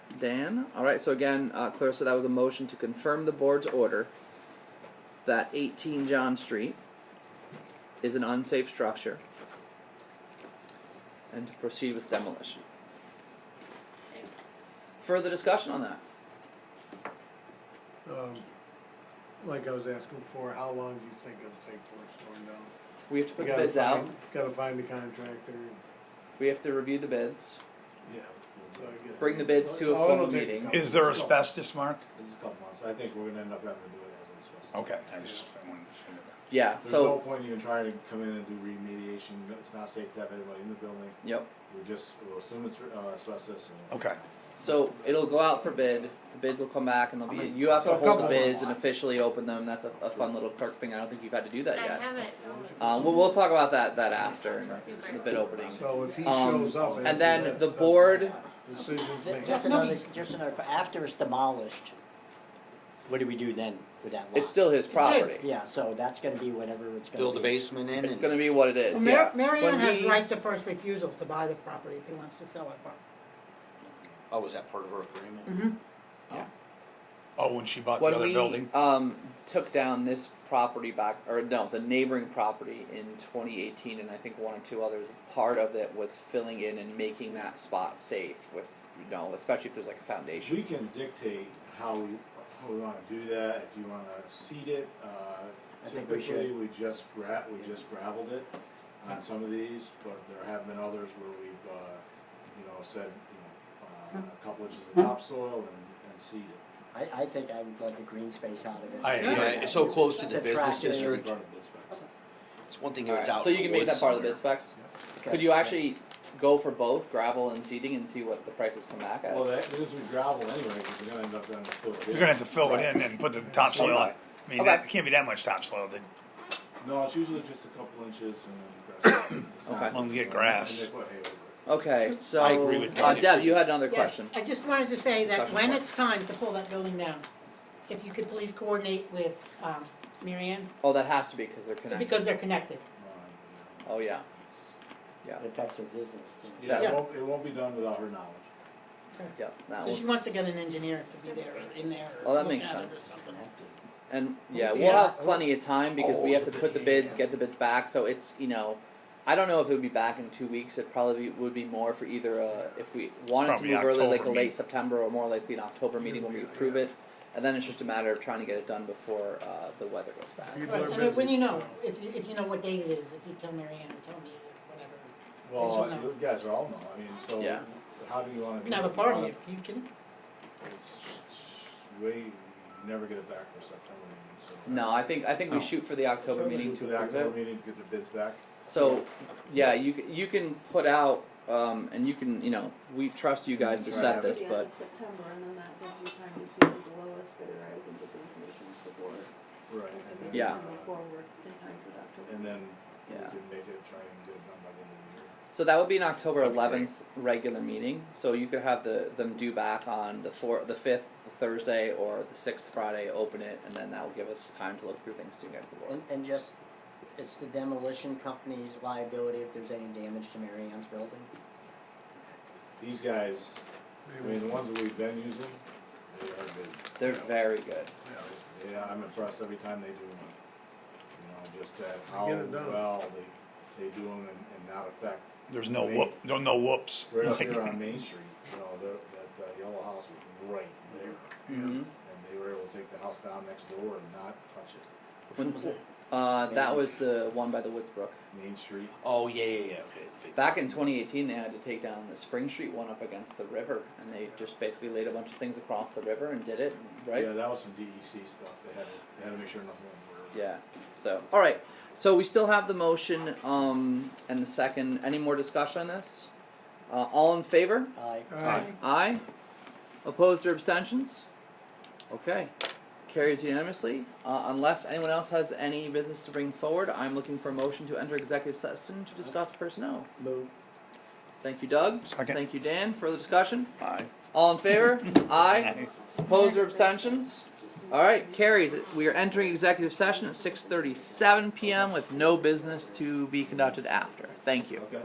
Dan. All right. So again, uh, Clarissa, that was a motion to confirm the board's order that 18 John Street is an unsafe structure and to proceed with demolition. Further discussion on that? Um, Like I was asking before, how long do you think it'll take for it's torn down? We have to put You gotta bids out. find- Gotta find the contractor. We have to review the bids. Yeah. so I guess- Bring the bids to a Oh, it'll full take meeting. couple- Is there asbestos, Mark? This is a couple months, I think we're gonna end up having to do it as an asbestos. Okay, I just I wanted to figure that. Yeah. There's no So. point in even trying to come in and do remediation, it's not safe to have anybody in the building, Yep. we just, we'll assume it's, uh, asbestos and. Okay, So it'll go out for bid. The bids will come back, and they'll be. You have So to a hold the couple- bids and officially open them. That's a, a fun little clerk thing. I don't think you've had to do that I yet. haven't. Um, we'll, we'll talk about that that after the bid opening. So if he Um, shows up. after And then this, the board. Decisions Ju- made. Just another, just another, after it's demolished, what do we do then with that lot? It's still his property. Yeah, so that's gonna be whatever it's gonna be. Fill the basement in It's and gonna be what it is. Well, Yeah. Mar- Marianne When has we- rights of first refusal to buy the property if he wants to sell it. but- Mm-hmm. oh, is that part of our agreement? oh, when she bought the when other we building? um, took down this property back, or no, the neighboring property in 2018, and I think one or two others, part of it was filling in and making that spot safe with, you know, especially if there's like a foundation. We can dictate how we, how we wanna do that, if you wanna seed it, uh, I think we typically, should. we just gra- we just gravelled it on some of these, but there have been others where we've, uh, you know, said, you know, uh, a couple inches of topsoil and, and seed it. I, I think I would love the green space out of it. I- Yeah, it's so close to the It's business attractive. district. Part of the bid specs. It's one thing if Alright, it's out. so in you the can make woods that part of the bid somewhere. specs. Okay. Could you actually go for both gravel and seeding and see what the prices come back as? Well, that, because we gravel anyway, because we're gonna end up down the field. You're gonna have to fill it in and put the topsoil on. I mean, that Okay. can't be that much topsoil, then No, it's usually just a couple inches and then grass. It's not- Okay. As long as you get grass. And they put hay over it. okay, so I agree with uh, Dave. Deb, you had another Yes, question. I just wanted to say that Discussion when point. it's time to pull that building down, if you could please coordinate with um, Marianne, Oh, that has to be because they're connected. because they're connected. Uh, Um, oh yeah, It affects their business. so- Yeah, Yeah. it won't, it won't be done without her knowledge. yeah, that Because she one. wants to get an engineer to be there, or in there, Oh, or that look makes at it or sense. something. And yeah, we'll Yeah. have plenty of time because we have to put the bids, get the bids back. So it's you know, I don't know if it would be back in two weeks. It probably would be more for either uh, if we wanted Probably to move early, like a October late meeting. September or more likely an October meeting when we approve it. And then it's just a matter of trying to get it done before uh, the weather goes bad. People are Right, and when busy. you know, if you, if you know what date it is, if you tell Marianne or tell me, whatever. Well, Yes, you know. you guys are all know, I mean, so Yeah. how do you wanna? We do can have it? a You party, wanna- if you can, It's way, you never get it back for September meeting, so. No, I think I think we shoot for the October meeting For to the approve October it. meeting to get the bids back. So yeah, you c- you can put out um, and you can you know we trust you guys to Right. set this, the end but of September, and then that gives you time to see who the lowest bidder is and get the information to the board. Right. and and then, then Yeah. move uh, Forward in time for the October. And then we Yeah. can make it, try and get it done by the end of the year. So that would be an October eleventh regular meeting, so you could have the, them due back on the four, the fifth, the Thursday, or the sixth Friday, open it, and then that will give us time to look through things to get to the board. And, and just, it's the demolition company's liability if there's any damage to Mary Ann's building. These guys, I mean, the ones that we've been using, they are good. They're very good. Yeah, I'm impressed every time they do them. You know, just that how They get it done. well they, they do them and, and not affect. there's no whoop, no, no whoops. Right up Like, here on Main Street, you know, the, that, uh yellow house was right there. Mhm. And they were able to take the house down next door and not touch it. When was it? Uh, that was the one by the Woodsbrook. Main Street, Oh yeah, yeah, yeah. Okay. the big- Back in twenty eighteen, they had to take down the Spring Street one up against the river, and they just basically laid a bunch of things across the river and did it, right? yeah, that was some DEC stuff, they had, to- they had to make sure nothing went wrong. Yeah. So, all right. So we still have the motion um, and the second. Any more discussion on this? Uh, all in favor? I, Aye. Aye. Opposed or abstentions? Okay. Carries unanimously. Uh, unless anyone else has any business to bring forward, I'm looking for a motion to enter executive session to discuss personnel. move. Thank you, Doug. Second. Thank you, Dan. Further discussion? Aye. All in favor? Aye. Opposed or abstentions? All right, carries. We are entering executive session at 6:37 p.m. with no business to be conducted after. Thank you. Okay.